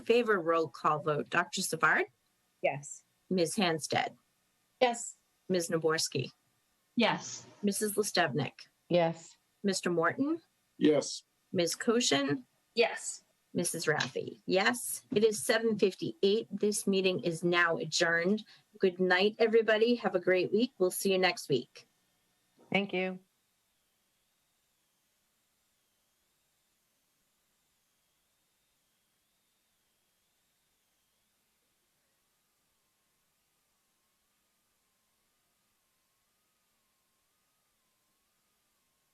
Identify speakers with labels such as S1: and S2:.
S1: favor, roll call vote. Dr. Savard,
S2: Yes.
S1: Ms. Hanstead,
S2: Yes.
S1: Ms. Naborski,
S3: Yes.
S1: Mrs. Listevnik,
S2: Yes.
S1: Mr. Morton,
S4: Yes,
S1: Ms. Koshin,
S2: Yes.
S1: Mrs. Raffi. Yes, it is 7:58. This meeting is now adjourned. Good night, everybody. Have a great week. We'll see you next week.
S2: Thank you.